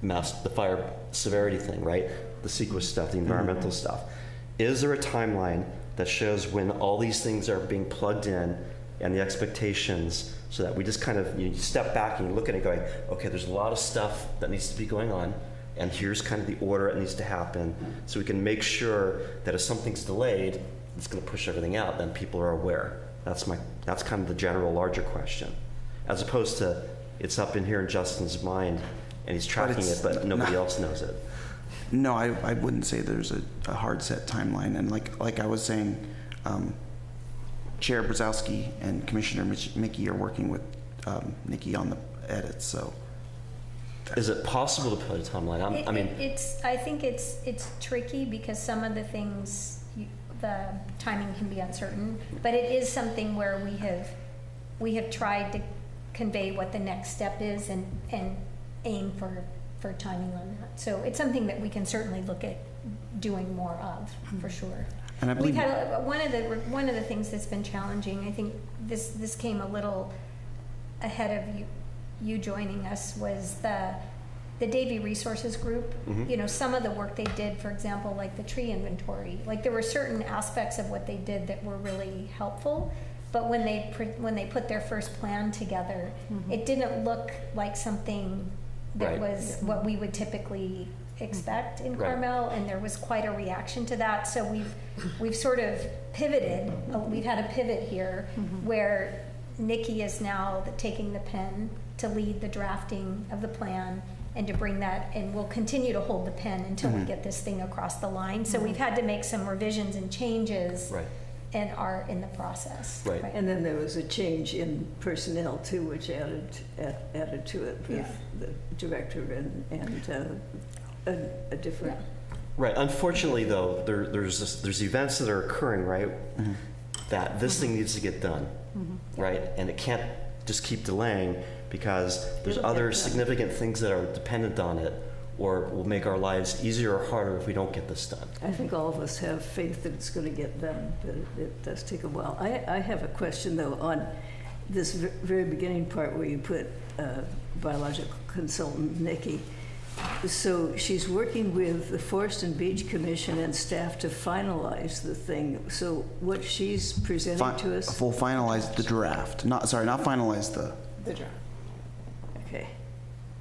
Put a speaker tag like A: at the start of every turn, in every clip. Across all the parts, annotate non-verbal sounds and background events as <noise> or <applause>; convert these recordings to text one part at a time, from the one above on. A: mass, the fire severity thing, right? The sequence stuff, the environmental stuff. Is there a timeline that shows when all these things are being plugged in and the expectations so that we just kind of, you step back and you look at it going, okay, there's a lot of stuff that needs to be going on and here's kind of the order it needs to happen so we can make sure that if something's delayed, it's going to push everything out, then people are aware. That's my, that's kind of the general larger question as opposed to it's up in here in Justin's mind and he's tracking
B: it's
A: it, but nobody
B: not-
A: else knows it.
B: No, I, I wouldn't say there's a, a hard set timeline. And like, like I was saying, um, Chair Brzezowski and Commissioner Mich- Mickey are working with um, Nikki on the edits, so.
A: Is it possible to put a timeline? I'm,
C: It-
A: I mean,
C: it- It's, I think it's, it's tricky because some of the things, you- the timing can be uncertain, but it is something where we have, we have tried to convey what the next step is and, and aim for, for timing on that. So it's something that we can certainly look at doing more of, for sure.
B: And I
C: We've
B: believe,
C: had, a- uh, one of the, one of the things that's been challenging, I think this, this came a little ahead of you, you joining us, was the, the Davy Resources Group.
A: Mhm.
C: You know, some of the work they did, for example, like the tree inventory, like there were certain aspects of what they did that were really helpful. But when they, pre- when they put their first plan together, it didn't look like something that
A: Right.
C: was what we would typically expect in
A: Right.
C: Carmel well, and there was quite a reaction to that. So we've we've sort of pivoted. Uh, We've had a pivot here where Nikki is now the- taking the pen to lead the drafting of the plan and to bring that, and we'll continue to hold the pen until we get this thing across the line. So we've had to make some revisions and changes
A: right.
C: and are in the process.
A: Right.
D: And then there was a change in personnel too, which added, added to it with
C: Yeah.
D: the director and, and uh, a, a different,
A: Right. Unfortunately, though, there, there's this, there's events that are occurring, right?
C: Mm-hmm.
A: That this thing needs to get done,
D: Mm-hmm.
A: right? And it can't just keep delaying because there's
D: It'll get
A: other
D: done.
A: significant things that are dependent on it, or will make our lives easier or harder if we don't get this done.
D: I think all of us have faith that it's going to get done, but it- it does take a while. I, I have a question though on this ver- very beginning part where you put uh, biological consultant Nikki. So she's working with the Forest and Beach Commission and staff to finalize the thing. So what she's presenting
B: fi-
D: to us?
B: we'll finalize the draft, not, sorry, not finalize the,
E: The draft.
D: Okay.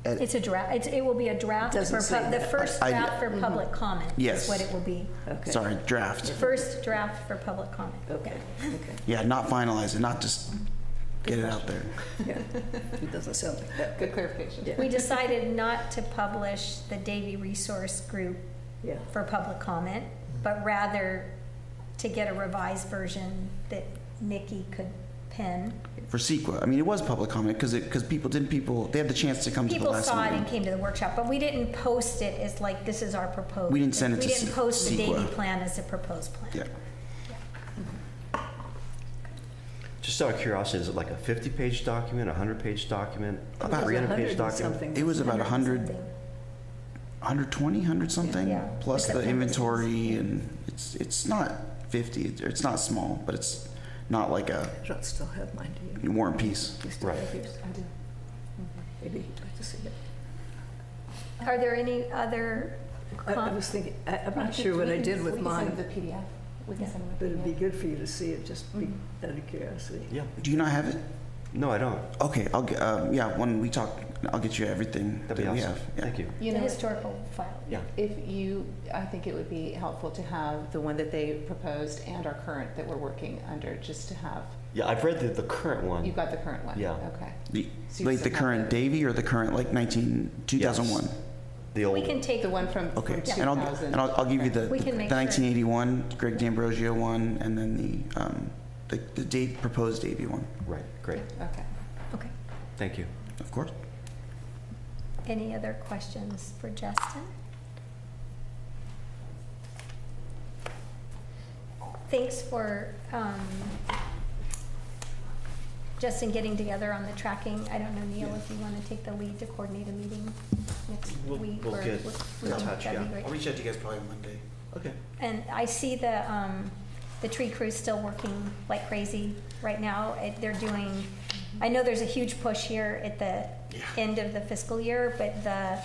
C: It's a draft, it's, it will be a draft for,
D: Doesn't say
C: pub- the
D: that.
C: first
B: I- I-
C: draft for public comment is
B: Yes.
C: what it will be.
D: Okay.
B: sorry, draft.
C: First draft for public comment.
D: Okay,
B: Yeah, not finalize it, not just get it out there.
D: okay. <laughs> It doesn't sound like that.
E: Good clarification.
D: Yeah.
C: We decided not to publish the Davy Resource Group
D: Yeah,
C: for public comment, but rather to get a revised version that Nikki could pen.
B: For CEQA, I mean, it was public comment, because it, because people, didn't people, they had the chance to come to the
C: People
B: last
C: saw it
B: meeting.
C: and came to the workshop, but we didn't post it as like, this is our proposed.
B: We didn't send it to
C: We didn't
B: Se-
C: post the Davy
B: Sequa.
C: plan as a proposed plan.
B: Yeah,
A: Just out of curiosity, is it like a 50-page document, a 100-page document, a
B: About-
A: 300-page
D: 100 and
A: document?
D: something.
B: it was about a hundred,
C: something.
B: 120, 100 something,
C: Yeah.
B: plus
C: Except
B: the
C: for
B: inventory, and it's it's not 50, it's- it's not small, but it's not like a
D: I don't still have mine, do you?
B: War and Peace.
D: You still
A: Right.
D: have yours?
E: I do.
D: Maybe you'd like to see it.
C: Are there any other
E: Uh,
D: I- I
C: com-
D: was thinking, I- I'm not sure what I did with mine,
E: the PDF. We
C: can
E: can
C: Yeah.
E: send
D: but it'd be good for you to see it, just be out of curiosity.
A: Yeah.
B: Do you not have it?
A: No, I don't.
B: Okay, I'll get, uh, yeah, when we talk, I'll get you everything that
A: That'd be
B: we
A: awesome.
B: have. yeah.
A: Thank you.
E: You
C: the
E: know,
C: historical file?
A: Yeah.
E: if you, I think it would be helpful to have the one that they proposed and our current that we're working under, just to have,
A: Yeah, I've read the, the current one.
E: you've got the current one?
A: Yeah.
E: Okay.
B: The,
E: So you
B: like the
E: still have
B: current
E: it.
B: Davy or the current like 19, 2001?
A: Yes. The old
C: We can take,
E: The one from from
B: Okay,
E: 2000.
B: and I'll, and I'll, I'll give you the, the
C: We can make sure.
B: 1981 Greg D'Ambrosio one, and then the um, the, the date proposed Davy one,
A: Right, great.
E: Okay.
C: okay.
A: Thank you.
B: of course.
C: Any other questions for Justin? Thanks for, um, Justin getting together on the tracking. I don't know, Neil, if you want to take the lead to coordinate a meeting next
A: We'll-
C: week?
A: we'll
C: or-
A: get
C: we'll-
A: in
C: um,
A: touch,
C: that'd be
A: yeah.
C: great.
B: reach out to you guys probably Monday.
A: Okay.
C: And I see the, um, the tree crew's still working like crazy right now. It- They're doing, I know there's a huge push here at the end of the fiscal year, but the